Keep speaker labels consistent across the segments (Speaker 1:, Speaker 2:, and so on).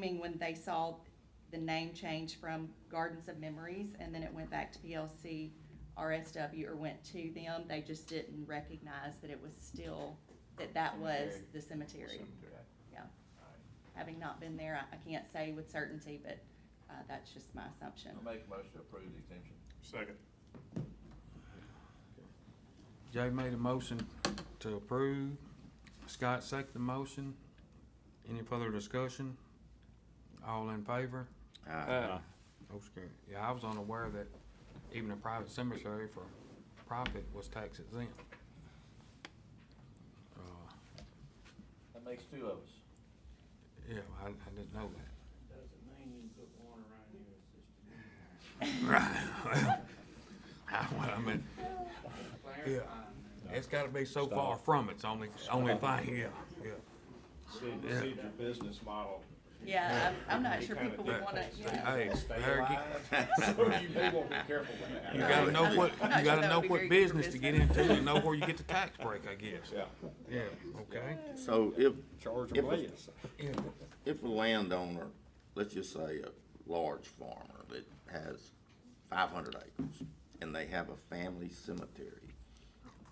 Speaker 1: mean, when they saw the name change from Gardens of Memories and then it went back to PLC RSW or went to them, they just didn't recognize that it was still, that that was
Speaker 2: Cemetery.
Speaker 1: the cemetery.
Speaker 2: Cemetery.
Speaker 1: Yeah.
Speaker 2: Alright.
Speaker 1: Having not been there, I, I can't say with certainty, but, uh, that's just my assumption.
Speaker 2: I'll make a motion to approve the exemption.
Speaker 3: Second.
Speaker 4: Jay made a motion to approve. Scott seconded the motion. Any further discussion? All in favor? Motion carried. Yeah, I was unaware that even a private cemetery for profit was tax exempt. Uh,
Speaker 2: That makes two of us.
Speaker 4: Yeah, I, I didn't know that.
Speaker 5: Doesn't mean you can put one around your sister.
Speaker 4: Right. Well, I mean,
Speaker 5: Clarifying that.
Speaker 4: it's gotta be so far from it's only, only thing, yeah, yeah.
Speaker 6: Sid,
Speaker 4: Yeah.
Speaker 6: Sid, your business model.
Speaker 1: Yeah, I'm, I'm not sure
Speaker 6: Kinda
Speaker 1: people would
Speaker 6: think
Speaker 1: wanna,
Speaker 6: it's
Speaker 1: yeah.
Speaker 4: Hey,
Speaker 6: Stay
Speaker 4: Harry, get-
Speaker 6: alive, so you people be careful with that.
Speaker 4: You gotta know what,
Speaker 1: I'm not sure
Speaker 4: you gotta
Speaker 1: that
Speaker 4: know
Speaker 1: would be
Speaker 4: what
Speaker 1: very good for
Speaker 4: business to get
Speaker 1: business.
Speaker 4: into and know where you get the tax break, I guess.
Speaker 6: Yeah.
Speaker 4: Yeah, okay.
Speaker 7: So if,
Speaker 6: Charge
Speaker 7: If-
Speaker 6: them less.
Speaker 4: Yeah.
Speaker 7: if a landowner, let's just say a large farmer that has five hundred acres and they have a family cemetery,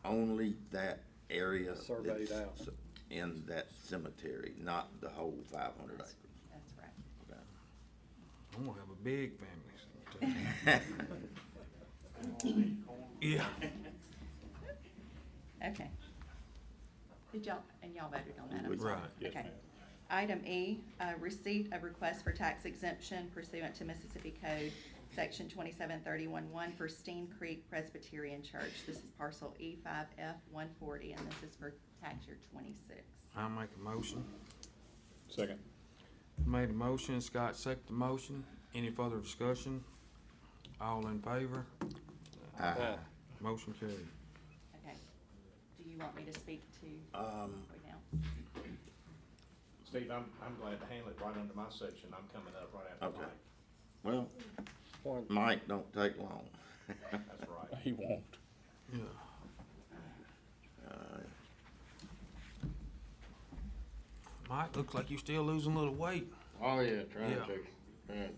Speaker 7: only that area
Speaker 6: Surveyed
Speaker 7: that's in that cemetery, not the whole five hundred acres.
Speaker 1: That's right.
Speaker 7: okay?
Speaker 4: I'm gonna have a big family. Yeah.
Speaker 1: Okay. Did y'all, and y'all voted on that, I'm
Speaker 7: We-
Speaker 1: sorry.
Speaker 4: Right.
Speaker 3: Yes,
Speaker 1: Okay.
Speaker 3: ma'am.
Speaker 1: Item E, uh, receipt of request for tax exemption pursuant to Mississippi Code, section twenty-seven thirty-one one for Steen Creek Presbyterian Church. This is parcel E five F one forty, and this is for tax year twenty-six.
Speaker 4: I'll make a motion.
Speaker 3: Second.
Speaker 4: Made a motion, Scott seconded the motion. Any further discussion? All in favor?
Speaker 7: Aye.
Speaker 4: Motion carried.
Speaker 1: Okay. Do you want me to speak to
Speaker 7: Um,
Speaker 1: right now?
Speaker 6: Steve, I'm, I'm glad to handle it right under my section. I'm coming up right after
Speaker 7: Okay.
Speaker 6: Mike.
Speaker 7: well,
Speaker 3: Point.
Speaker 7: Mike, don't take long.
Speaker 6: That's right.
Speaker 3: He won't.
Speaker 4: Yeah.
Speaker 7: Uh,
Speaker 4: Mike, looks like you're still losing a little weight.
Speaker 8: Oh, yeah, trying
Speaker 4: Yeah.
Speaker 8: to, trying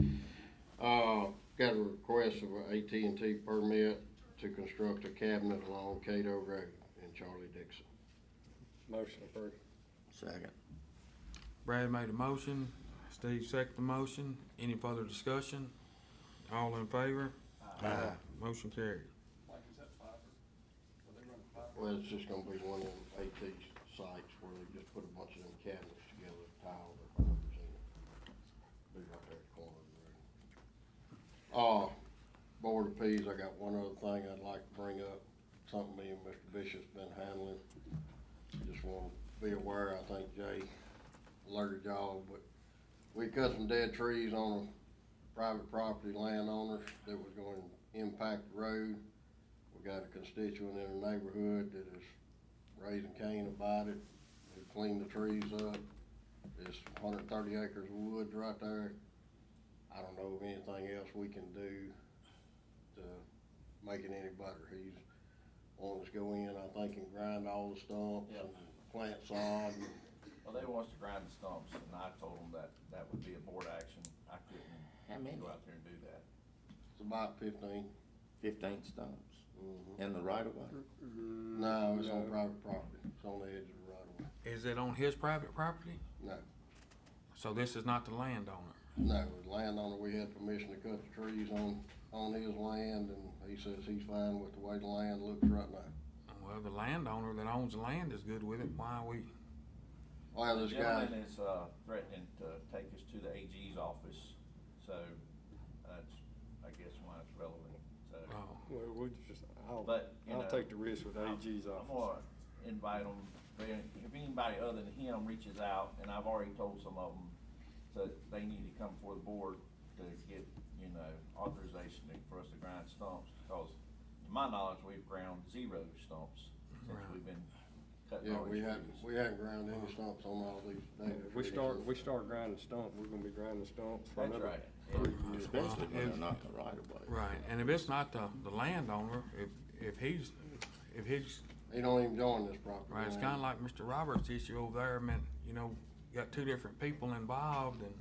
Speaker 8: to. Uh, got a request of an AT&T permit to construct a cabinet along Cato Road in Charlie Dixon.
Speaker 3: Motion approved.
Speaker 7: Second,
Speaker 4: Brad made a motion, Steve seconded the motion. Any further discussion? All in favor? Aye. Motion carried.
Speaker 8: Well, it's just gonna be one of them AT sites where they just put a bunch of them cabinets together, tile their corners in. Be right there at the corner of the room. Uh, Board of Peas, I got one other thing I'd like to bring up, something me and Mr. Bishop's been handling. Just wanna be aware, I think Jay alerted y'all, but we cut some dead trees on a private property landowners that was going to impact the road. We got a constituent in the neighborhood that is raising Cain about it, who cleaned the trees up. There's hundred and thirty acres of woods right there. I don't know of anything else we can do to make it any better. He's wanting us to go in, I think, and grind all the stumps and plant sod and
Speaker 2: Well, they want us to grind the stumps, and I told them that that would be a board action. I couldn't go out there and do that.
Speaker 8: it's about fifteen.
Speaker 7: fifteen stumps
Speaker 8: Mhm.
Speaker 7: in the right of way.
Speaker 3: Hmm.
Speaker 8: No, it's on private property. It's on the edge of the right of way.
Speaker 4: Is it on his private property?
Speaker 8: No,
Speaker 4: So this is not the landowner?
Speaker 8: no, the landowner, we had permission to cut the trees on, on his land, and he says he's fine with the way the land looks right now.
Speaker 4: Well, the landowner that owns the land is good with it, why are we?
Speaker 8: Well, this guy,
Speaker 2: Gentleman is, uh, threatening to take us to the AG's office, so that's, I guess, why it's relevant, so.
Speaker 4: Oh,
Speaker 3: Well, we just, I'll,
Speaker 2: But, you know.
Speaker 3: I'll take the risk with AG's
Speaker 2: I'm- I'm
Speaker 3: office.
Speaker 2: gonna invite them, if anybody other than him reaches out, and I've already told some of them that they need to come before the board to get, you know, authorization to- for us to grind stumps, because to my knowledge, we've ground zero stumps since
Speaker 4: Right.
Speaker 2: we've been cutting
Speaker 8: yeah,
Speaker 2: all
Speaker 8: we
Speaker 2: these
Speaker 8: hadn't,
Speaker 2: trees.
Speaker 8: we hadn't ground any stumps on all these.
Speaker 3: Yeah,
Speaker 8: damn
Speaker 3: If we
Speaker 8: trees.
Speaker 3: start, we start grinding stump, we're gonna be grinding stumps for
Speaker 2: That's
Speaker 3: another.
Speaker 2: right.
Speaker 3: three
Speaker 2: Yeah.
Speaker 3: years.
Speaker 7: Especially when they're not in the right of way.
Speaker 4: right, and if it's not the, the landowner, if, if he's, if he's,
Speaker 8: He don't even join this property.
Speaker 4: right, it's
Speaker 8: line.
Speaker 4: kinda like Mr. Roberts' issue over there, I mean, you know, got two different people involved and